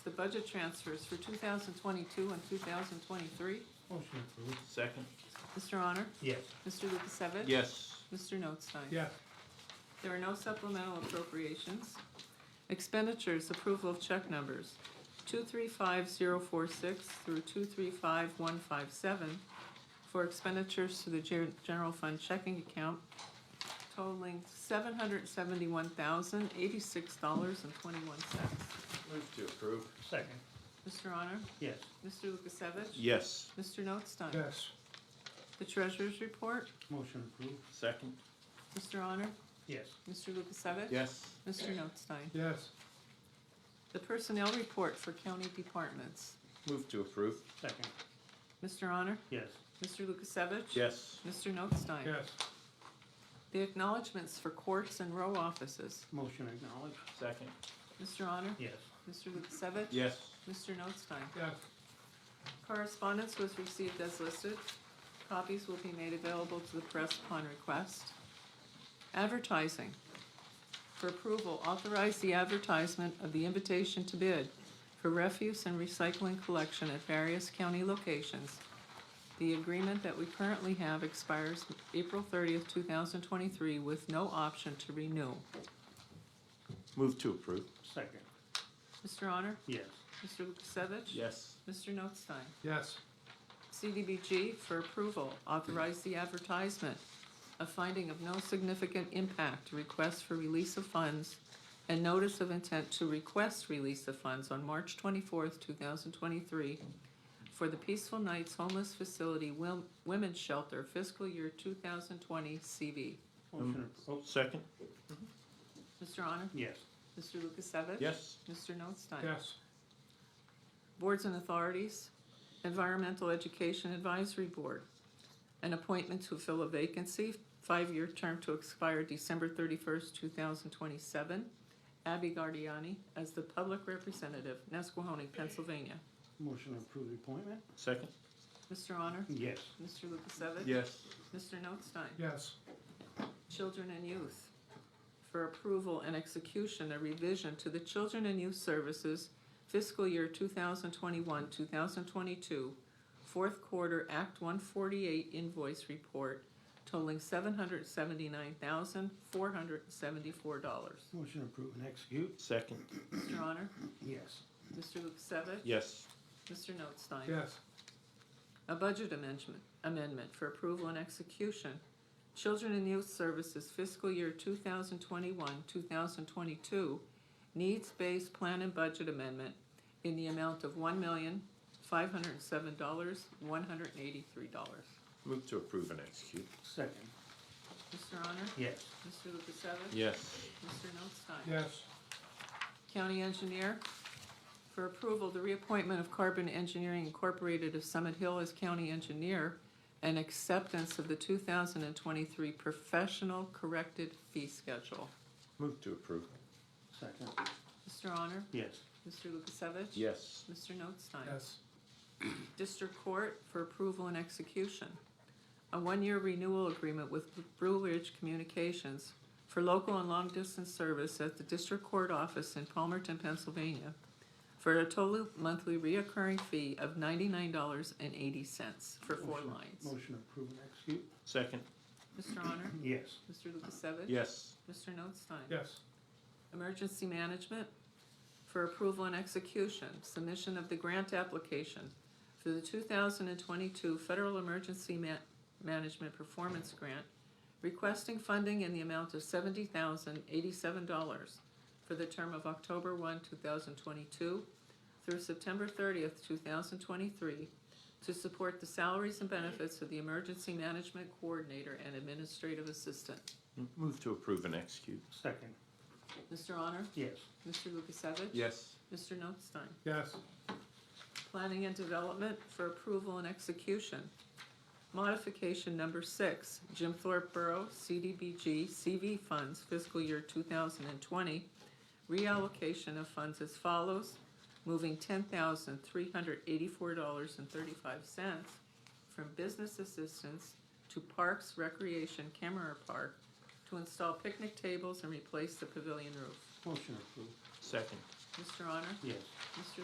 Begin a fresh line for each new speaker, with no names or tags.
the budget transfers for two thousand twenty-two and two thousand twenty-three.
Motion approved.
Second?
Mr. Honor?
Yes.
Mr. Lukasevich?
Yes.
Mr. Notstein?
Yes.
There are no supplemental appropriations. Expenditures, approval of check numbers, two-three-five-zero-four-six through two-three-five-one-five-seven for expenditures to the ger- general fund checking account totaling seven hundred seventy-one thousand, eighty-six dollars and twenty-one cents.
Move to approve.
Second.
Mr. Honor?
Yes.
Mr. Lukasevich?
Yes.
Mr. Notstein?
Yes.
The treasurer's report,
Motion approved.
Second?
Mr. Honor?
Yes.
Mr. Lukasevich?
Yes.
Mr. Notstein?
Yes.
The personnel report for county departments.
Move to approve.
Second.
Mr. Honor?
Yes.
Mr. Lukasevich?
Yes.
Mr. Notstein?
Yes.
The acknowledgements for courts and row offices.
Motion acknowledged.
Second?
Mr. Honor?
Yes.
Mr. Lukasevich?
Yes.
Mr. Notstein?
Yes.
Correspondence was received as listed. Copies will be made available to the press upon request. Advertising. For approval, authorize the advertisement of the invitation to bid for refuse and recycling collection at various county locations. The agreement that we currently have expires April thirtieth, two thousand twenty-three with no option to renew.
Move to approve.
Second.
Mr. Honor?
Yes.
Mr. Lukasevich?
Yes.
Mr. Notstein?
Yes.
CDBG for approval, authorize the advertisement of finding of no significant impact, request for release of funds, and notice of intent to request release of funds on March twenty-fourth, two thousand twenty-three for the Peaceful Nights Homeless Facility Wil- Women's Shelter fiscal year two thousand twenty CV.
Motion approved.
Second?
Mr. Honor?
Yes.
Mr. Lukasevich?
Yes.
Mr. Notstein?
Yes.
Boards and authorities, Environmental Education Advisory Board, an appointment to fill a vacancy, five-year term to expire December thirty-first, two thousand twenty-seven. Abby Guardiani as the public representative, Nescahoning, Pennsylvania.
Motion approved appointment.
Second?
Mr. Honor?
Yes.
Mr. Lukasevich?
Yes.
Mr. Notstein?
Yes.
Children and Youth for approval and execution, a revision to the Children and Youth Services fiscal year 2021, 2022, fourth quarter Act 148 invoice report totaling $779,474.
Motion approved and execute.
Second?
Mr. Honor?
Yes.
Mr. Lukasevich?
Yes.
Mr. Notstein?
Yes.
A budget amendment, amendment for approval and execution. Children and Youth Services fiscal year two thousand twenty-one, two thousand twenty-two, needs-based plan and budget amendment in the amount of one million, five hundred and seven dollars, one hundred and eighty-three dollars.
Move to approve and execute.
Second.
Mr. Honor?
Yes.
Mr. Lukasevich?
Yes.
Mr. Notstein?
Yes.
County Engineer, for approval, the reappointment of Carbon Engineering Incorporated of Summit Hill as County Engineer and acceptance of the two thousand and twenty-three professional corrected fee schedule.
Move to approve.
Second.
Mr. Honor?
Yes.
Mr. Lukasevich?
Yes.
Mr. Notstein? District Court for approval and execution. A one-year renewal agreement with Blue Ridge Communications for local and long-distance service at the District Court Office in Palmerton, Pennsylvania, for a total monthly reoccurring fee of ninety-nine dollars and eighty cents for four
Motion-
lines.
Motion approved and execute.
Second?
Mr. Honor?
Yes.
Mr. Lukasevich?
Yes.
Mr. Notstein?
Yes.
Emergency Management for approval and execution, submission of the grant application for the two thousand and twenty-two Federal Emergency Ma- Management Performance Grant, requesting funding in the amount of seventy thousand eighty-seven dollars for the term of October one, two thousand twenty-two through September thirtieth, two thousand twenty-three, to support the salaries and benefits of the Emergency Management Coordinator and Administrative Assistant.
Move to approve and execute.
Second.
Mr. Honor?
Yes.
Mr. Lukasevich?
Yes.
Mr. Notstein.
Yes.
Planning and Development for approval and execution. Modification number six, Jim Thorpe Borough CDBG CV funds fiscal year two thousand and twenty. Reallocation of funds as follows, moving ten thousand three hundred eighty-four dollars and thirty-five cents from business assistance to Parks Recreation Camera Park to install picnic tables and replace the pavilion roof.
Motion approved.
Second?
Mr. Honor?
Yes.
Mr.